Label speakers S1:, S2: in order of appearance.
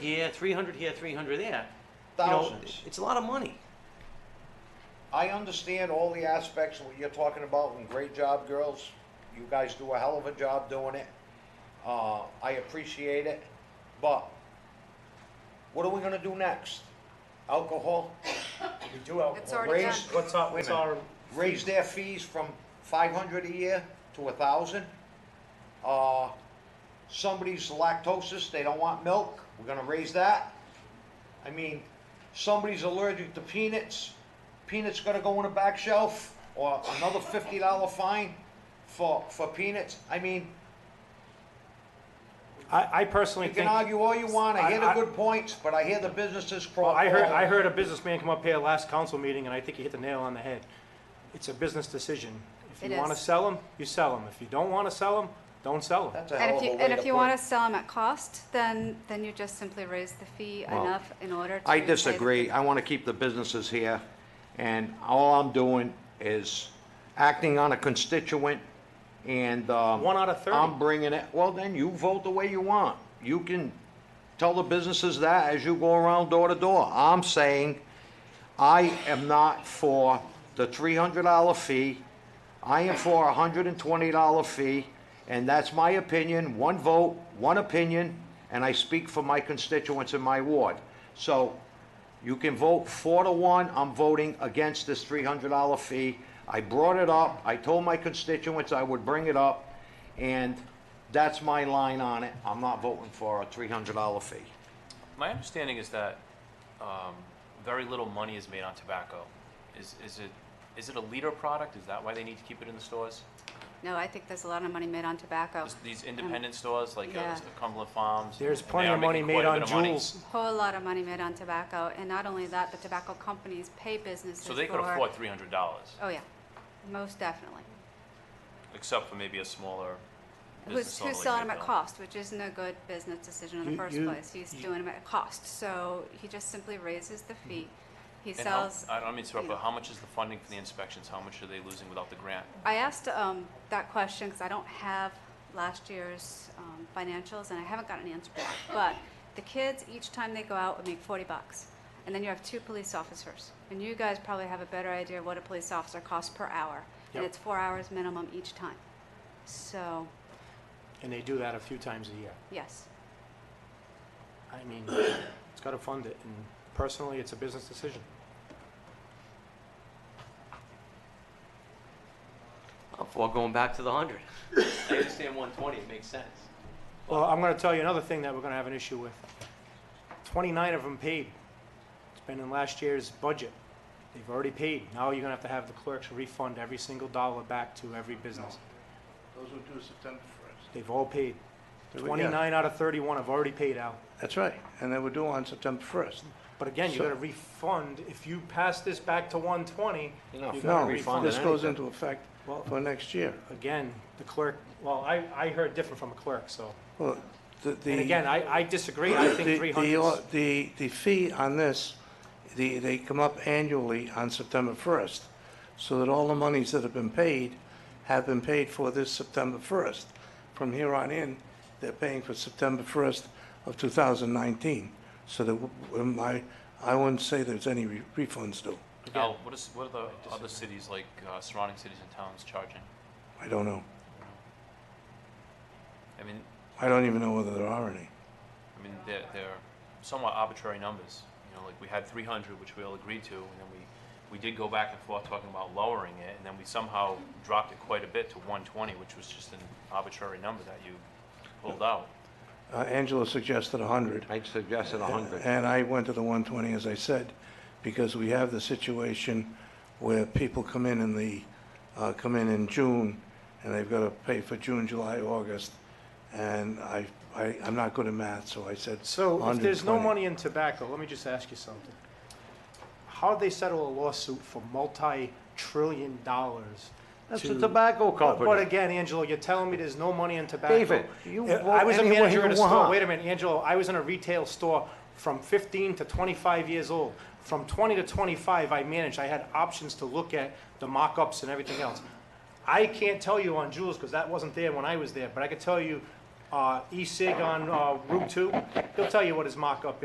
S1: here, 300 here, 300 there. You know,
S2: Thousands.
S1: it's a lot of money.
S2: I understand all the aspects of what you're talking about, and great job, girls. You guys do a hell of a job doing it. Uh, I appreciate it, but what are we gonna do next? Alcohol?
S3: We do help.
S4: It's already done.
S2: Raise-
S3: What's our, what's our,
S2: raise their fees from five hundred a year to a thousand. Uh, somebody's lactosis, they don't want milk, we're gonna raise that. I mean, somebody's allergic to peanuts, peanuts gonna go on a back shelf, or another fifty dollar fine for, for peanuts. I mean,
S3: I, I personally
S2: you
S3: think.
S2: can argue all you want, I hear the
S3: I- I-
S2: good points, but I hear the businesses
S3: Well,
S2: crawl.
S3: I heard, I heard a businessman come up here last council meeting, and I think he hit the nail on the head. It's a business decision. If
S4: It
S3: you want to
S4: is.
S3: sell them, you sell them. If you don't want to sell them, don't sell them.
S2: That's a
S4: And
S2: hell of
S4: if
S2: a
S4: you,
S2: way
S4: and if
S2: to
S4: you
S2: put
S4: want
S2: it.
S4: to sell them at cost, then, then you just simply raise the fee
S2: Well,
S4: enough in order to.
S2: I
S4: pay the-
S2: disagree. I want to keep the businesses here, and all I'm doing is acting on a constituent, and, um...
S3: One out of 30.
S2: I'm bringing it, well, then you vote the way you want. You can tell the businesses that as you go around door to door. I'm saying, I am not for the three hundred dollar fee. I am for a hundred and twenty dollar fee, and that's my opinion, one vote, one opinion, and I speak for my constituents in my ward. So you can vote four to one, I'm voting against this three hundred dollar fee. I brought it up, I told my constituents I would bring it up, and that's my line on it. I'm not voting for a three hundred dollar fee.
S5: My understanding is that um, very little money is made on tobacco. Is, is it is it a leader product? Is that why they need to keep it in the stores?
S4: No, I think there's a lot of money made on tobacco.
S5: Just these independent stores like uh,
S4: Um, yeah.
S5: Cumberland Farms.
S3: There's
S5: and they
S3: plenty
S5: are
S3: of money
S5: making
S3: made
S5: quite a
S3: on
S5: bit of money.
S3: Juul's.
S4: Whole lot of money made on tobacco, and not only that, but tobacco companies pay businesses
S5: So they could
S4: for-
S5: afford three hundred dollars,
S4: Oh, yeah, most definitely.
S5: except for maybe a smaller.
S4: Who's,
S5: business owner
S4: who's
S5: like
S4: selling them at
S5: Midvale.
S4: cost, which isn't a good business decision in the
S3: You-
S4: first
S3: you-
S4: place. He's doing them at cost, so he just simply raises the fee. He
S5: And how,
S4: sells.
S5: I don't mean to interrupt,
S4: you know.
S5: but how much is the funding for the inspections? How much are they losing without the grant?
S4: I asked um, that question because I don't have last year's um, financials and I haven't got an answer back. But the kids, each time they go out, would make 40 bucks. And then you have two police officers. And you guys probably have a better idea of what a police officer costs per hour.
S3: Yep.
S4: And it's four hours minimum each time. So,
S3: And they do that a few times a year.
S4: yes.
S3: I mean, it's got to fund it, and personally, it's a business decision.
S1: I'm for going back to the 100. I understand 120, it makes sense.
S3: Well, I'm going to tell you another thing that we're going to have an issue with. 29 of them paid. It's been in last year's budget. They've already paid. Now you're going to have to have the clerks refund every single dollar back to every business.
S6: Those were due September first.
S3: They've all paid.
S6: There we go.
S3: 29 out of 31 have already paid out.
S6: That's right, and they were due on September first.
S3: But again, you
S6: So-
S3: gotta refund, if you pass this back to one twenty, you
S2: You're not
S3: gotta
S6: No,
S2: refunding
S3: refund.
S6: this goes
S2: anything.
S6: into effect
S3: Well-
S6: for next year.
S3: Again, the clerk, well, I, I heard different from a clerk, so,
S6: Well, the, the.
S3: and again, I, I disagree, I
S6: the-
S3: think three
S6: the-
S3: hundred.
S6: The, the fee on this, the, they come up annually on September first, so that all the monies that have been paid have been paid for this September first. From here on in, they're paying for September first of two thousand nineteen, so that, w- w- I, I wouldn't say there's any re- refunds due,
S5: Al, what is, what are the other cities like, uh, surrounding cities and towns charging?
S6: I don't know.
S5: I mean,
S6: I don't even know whether there are any.
S5: I mean, they're, they're somewhat arbitrary numbers. You know, like we had 300, which we all agreed to, and then we, we did go back and forth talking about lowering it, and then we somehow dropped it quite a bit to 120, which was just an arbitrary number that you pulled out.
S6: Uh, Angela suggested 100,
S2: I suggested a hundred.
S6: and I went to the 120, as I said, because we have the situation where people come in in the, uh, come in in June, and they've got to pay for June, July, August, and I, I- I'm not good at math, so I said
S3: So if there's no
S6: 120.
S3: money in tobacco, let me just ask you something. How'd they settle a lawsuit for multi-trillion dollars?
S2: That's
S3: to-
S2: a tobacco
S3: But- But
S2: company.
S3: again, Angelo, you're telling me there's no money in tobacco.
S2: David, you
S3: Uh,
S2: vote
S3: I was a
S2: any way
S3: manager
S2: you
S3: at a store,
S2: want.
S3: wait a minute, Angelo, I was in a retail store from fifteen to twenty-five years old. From twenty to twenty-five, I managed, I had options to look at the mock-ups and everything else. I can't tell you on Jules, because that wasn't there when I was there, but I could tell you uh, E-Sig on uh, Route 2, he'll tell you what his mock-up